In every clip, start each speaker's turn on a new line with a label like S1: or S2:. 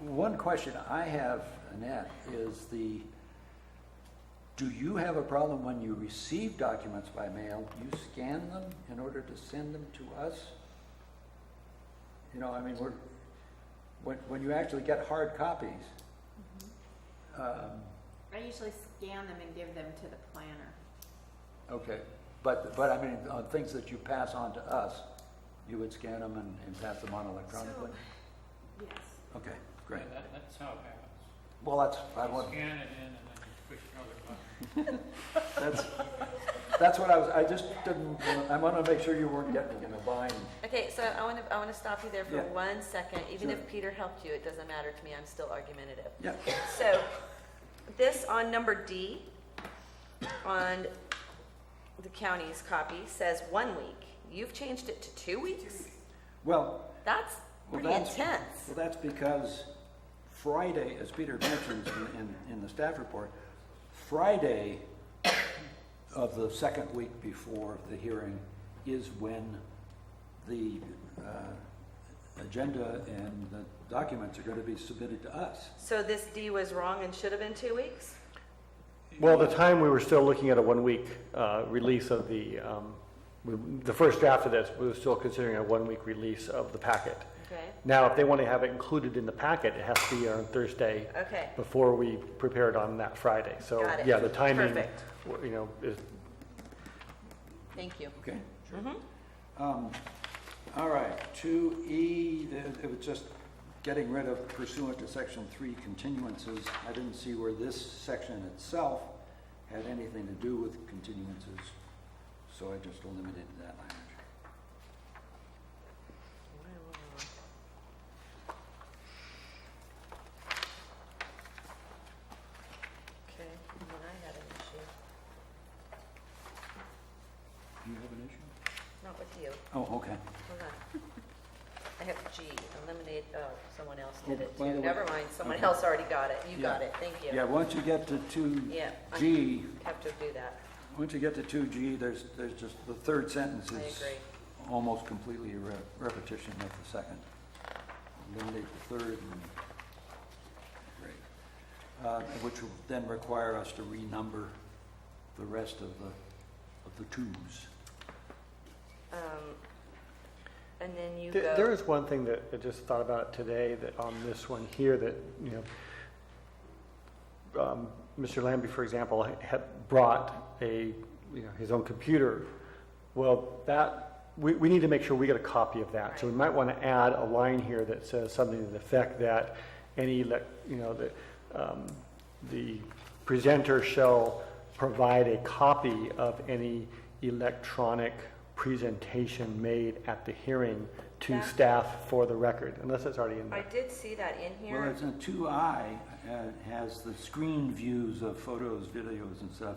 S1: one question I have, Annette, is the, do you have a problem when you receive documents by mail, you scan them in order to send them to us? You know, I mean, we're, when, when you actually get hard copies, um,
S2: I usually scan them and give them to the planner.
S1: okay, but, but I mean, on things that you pass on to us, you would scan them and, and pass them on electronically?
S2: Yes.
S1: Okay, great.
S3: Yeah, that- That's how it happens.
S1: Well, that's, I
S3: You
S1: want,
S3: Scan it in and then you push another button.
S1: That's, that's what I was, I just didn't, I want to make sure you weren't getting in a bind.
S4: Okay, so I want to, I want to stop you there for
S1: Yeah.
S4: one second. Even
S1: Sure.
S4: if Peter helped you, it doesn't matter to me. I'm still argumentative.
S1: Yeah.
S4: So this on number D on the county's copy says one week. You've changed it to two weeks?
S1: Well,
S4: That's
S1: Well,
S4: pretty
S1: that's-
S4: intense.
S1: well, that's because Friday, as Peter mentions in- in, in the staff report, Friday of the second week before the hearing is when the uh, agenda and the documents are going to be submitted to us.
S4: So this D was wrong and should have been two weeks?
S5: Well, at the time, we were still looking at a one-week uh, release of the, um, we- the first draft of this, we were still considering a one-week release of the packet.
S4: Okay,
S5: Now, if they want to have it included in the packet, it has to be on Thursday
S4: okay.
S5: before we prepare it on that Friday. So,
S4: Got it.
S5: yeah, the timing,
S4: Perfect.
S5: w- you know, is
S4: Thank you.
S1: Okay?
S4: Mhm.
S1: Um, All right, two E, it was just getting rid of pursuant to section three continuances. I didn't see where this section itself had anything to do with continuances, so I just eliminated that language.
S4: Okay, and then I had an issue,
S1: Do you have an issue?
S4: not with you.
S1: Oh, okay.
S4: Hold on. I have G, eliminate, oh, someone else did
S1: Oh,
S4: it
S1: by the
S4: too.
S1: way-
S4: Never mind, someone
S1: okay.
S4: else already got it. You
S1: Yeah.
S4: got it, thank you.
S1: Yeah, once you get to two
S4: Yeah, I-
S1: G,
S4: Have to do that,
S1: once you get to two G, there's, there's just, the third sentence
S4: I
S1: is
S4: agree.
S1: almost completely a re- repetition of the second. Eliminate the third and, great. Uh, Which will then require us to renumber the rest of the, of the twos.
S4: Um, And then you
S5: There there
S4: go,
S5: is one thing that I just thought about today that on this one here that, you know, um, Mr. Lambie, for example, had brought a, you know, his own computer. Well, that, we, we need to make sure we get a copy of that. So we might want to add a line here that says something to the effect that any, elec- you know, the, um, the presenter shall provide a copy of any electronic presentation made at the hearing to
S4: That-
S5: staff for the record, unless it's already in
S4: I
S5: there.
S4: did see that in
S1: Well,
S4: here.
S1: it's a two I, uh, has the screen views of photos, videos and stuff,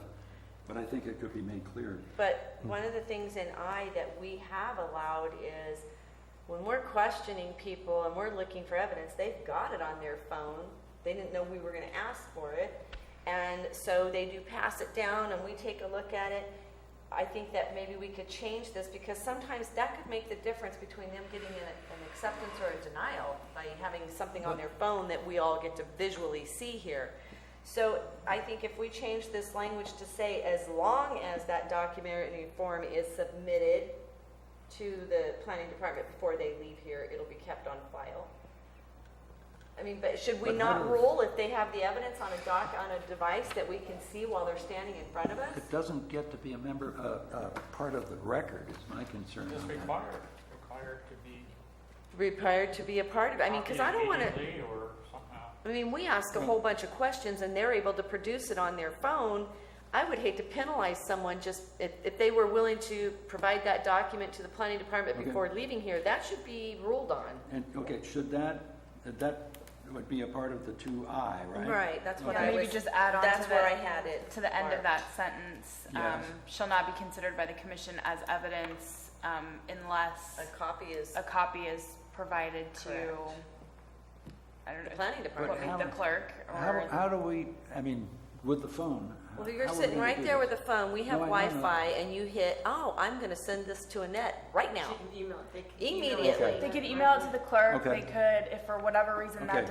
S1: but I think it could be made clear.
S4: But one of the things in I that we have allowed is when we're questioning people and we're looking for evidence, they've got it on their phone. They didn't know we were gonna ask for it. And so they do pass it down and we take a look at it. I think that maybe we could change this because sometimes that could make the difference between them getting an, an acceptance or a denial by having something on their phone that we all get to visually see here. So I think if we change this language to say, as long as that documentary form is submitted to the planning department before they leave here, it'll be kept on file. I mean, but should we
S1: But how
S4: not
S1: do-
S4: rule if they have the evidence on a doc, on a device that we can see while they're standing in front of us?
S1: It doesn't get to be a member, uh, uh, part of the record is my concern
S3: It's
S1: on that.
S3: required, required to be.
S4: Required to be a part of it. I mean, because I don't want to.
S3: copied immediately Or somehow.
S4: I mean, we ask a whole bunch of questions and they're able to produce it on their phone. I would hate to penalize someone just, if, if they were willing to provide that document to the planning department
S1: Okay.
S4: before leaving here, that should be ruled on.
S1: And, okay, should that, that would be a part of the two I, right?
S4: that's
S1: what
S6: Yeah,
S1: I
S6: maybe just add on
S4: That's
S6: to the,
S4: where I had it.
S6: to the end of that sentence. Um,
S1: Yes.
S6: shall not be considered by the commission as evidence um, unless
S4: A copy is
S6: a copy is provided to,
S4: Correct.
S6: I don't
S4: the
S6: know,
S4: planning
S6: what,
S4: department.
S1: But how-
S6: the clerk
S1: How,
S6: or,
S1: how do we, I mean, with the phone?
S4: Well,
S1: how-
S4: you're
S1: how are we
S4: sitting
S1: gonna
S4: right
S1: do
S4: there
S1: this?
S4: with a phone. We have
S1: No, I know that.
S4: Wi-Fi and you hit, oh, I'm gonna send this to Annette right now.
S2: She can email it. They can email it.
S4: Immediately.
S6: they could email it to the clerk,
S1: Okay.
S6: they could, if for whatever reason
S1: Okay.
S6: that